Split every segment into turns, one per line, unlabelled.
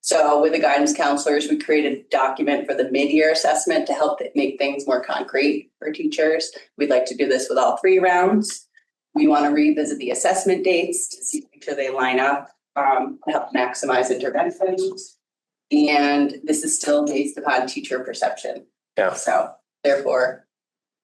So with the guidance counselors, we created a document for the mid-year assessment to help th- make things more concrete for teachers. We'd like to do this with all three rounds. We want to revisit the assessment dates to see, make sure they line up, um, to help maximize interventions. And this is still based upon teacher perception.
Yeah.
So therefore,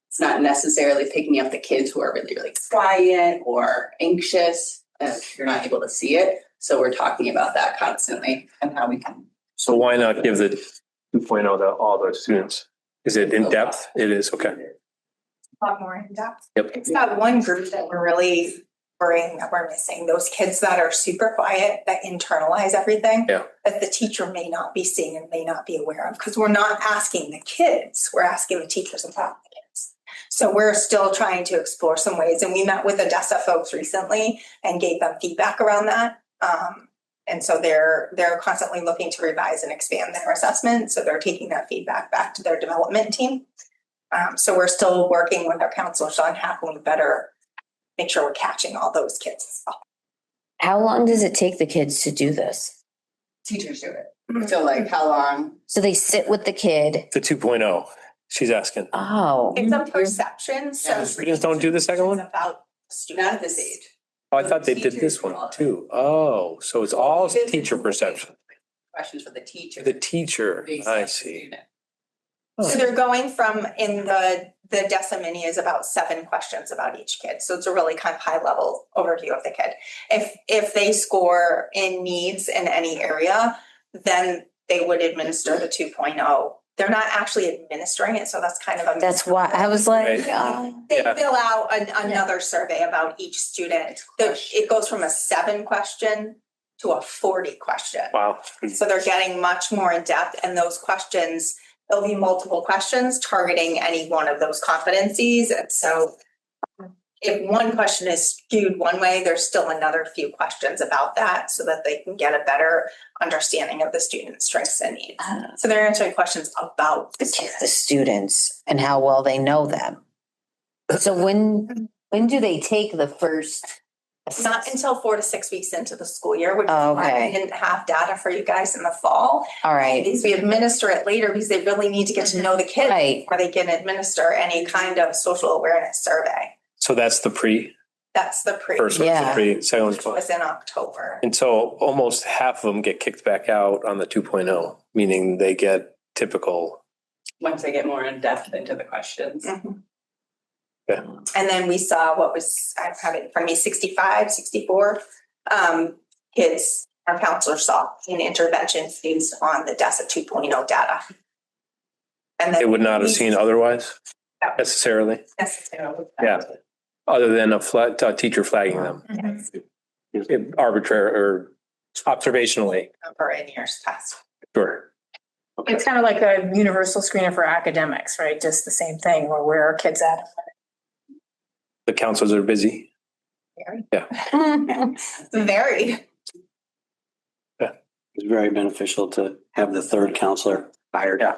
it's not necessarily picking up the kids who are really, really quiet or anxious, if you're not able to see it. So we're talking about that constantly and how we can.
So why not give the two oh to all the students? Is it in depth? It is, okay.
a lot more in depth.
Yep.
It's that one group that we're really worrying that we're missing, those kids that are super quiet, that internalize everything.
Yeah.
That the teacher may not be seeing and may not be aware of, because we're not asking the kids, we're asking the teachers about the kids. So we're still trying to explore some ways, and we met with Odessa folks recently and gave them feedback around that. Um, and so they're, they're constantly looking to revise and expand their assessment, so they're taking that feedback back to their development team. Um, so we're still working with our counselors on how can we better make sure we're catching all those kids as well.
How long does it take the kids to do this?
Teachers do
Mm-hmm.
it. So like how long?
So they sit with the kid.
The two oh, she's asking.
Oh,
It's a perception, so.
Yeah.
Students don't do the second one?
About
Not at
student
this age.
Oh, I thought they did this one too. Oh, so it's all teacher perception.
Questions for the teacher.
The teacher,
Based on
I
the
see.
student.
Oh.
So they're going from in the, the DESA mini is about seven questions about each kid. So it's a really kind of high level overview of the kid. If, if they score in needs in any area, then they would administer the 2.0. They're not actually administering it, so that's kind of a.
that's why I was like,
Right.
oh,
They
Yeah.
fill out an, another survey about each student. The, it goes from a seven question to a forty question.
Wow.
So they're getting much more in depth and those questions, there'll be multiple questions targeting any one of those competencies. And so um, if one question is skewed one way, there's still another few questions about that so that they can get a better understanding of the student's strengths and needs.
uh,
So they're answering questions about the
the t-
student.
the students and how well they know them. So when, when do they take the first?
Not until four to six weeks into the school year, which is
Oh,
why we
okay.
didn't have data for you guys in the fall.
All right, Mm-hmm.
Because we administer it later because they really need to get to know the kid
right.
before they can administer any kind of social awareness survey.
So that's the pre,
That's the pre,
first one's the
Yeah.
pre, second one's.
which was in October.
And so almost half of them get kicked back out on the two oh, meaning they get typical.
Once they get more in depth into the questions.
Mhm.
Yeah.
And then we saw what was, I have it from me, 65, 64 um, kids our counselor saw in intervention based on the DESA 2.0 data. And
They
then
would not have seen otherwise necessarily,
necessarily.
Yeah. other than a flat, a teacher flagging them
Yes,
arbitrary or observationally.
Number in years past.
Sure.
It's kind of like a universal screener for academics, right? Just the same thing where where are kids at?
The councils are busy.
Very.
It's very beneficial to have the third counselor hired.
Yeah.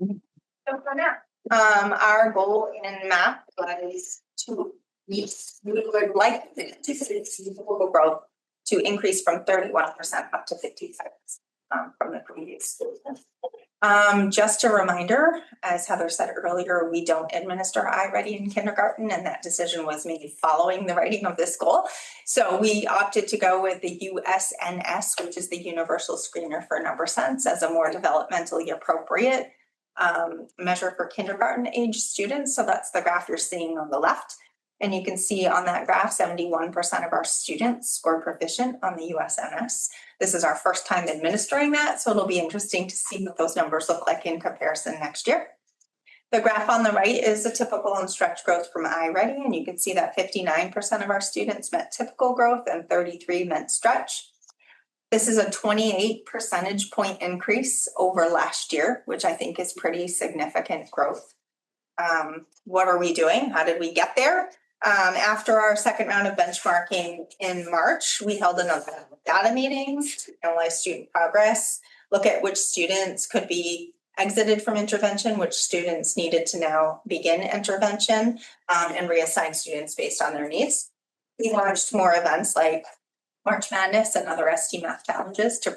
So for now, um, our goal in math was to reach, we would like the statistical growth to increase from thirty-one percent up to fifty-five percent um, from the previous school. year. Um, just a reminder, as Heather said earlier, we don't administer iReady in kindergarten, and that decision was made following the writing of this goal. So we opted to go with the USNS, which is the Universal Screener for Number Sense, as a more developmentally appropriate um, measure for kindergarten age students. So that's the graph you're seeing on the left. And you can see on that graph, 71% of our students scored proficient on the USNS. This is our first time administering that, so it'll be interesting to see what those numbers look like in comparison next year. The graph on the right is the typical and stretch growth from iReady, and you can see that 59% of our students met typical growth and 33 meant stretch. This is a twenty-eight percentage point increase over last year, which I think is pretty significant growth. Um, what are we doing? How did we get there? Um, after our second round of benchmarking in March, we held another round of data meetings, to analyze student progress, look at which students could be exited from intervention, which students needed to now begin intervention, um, and reassign students based on their needs. We launched more events like March Madness and other ST math challenges to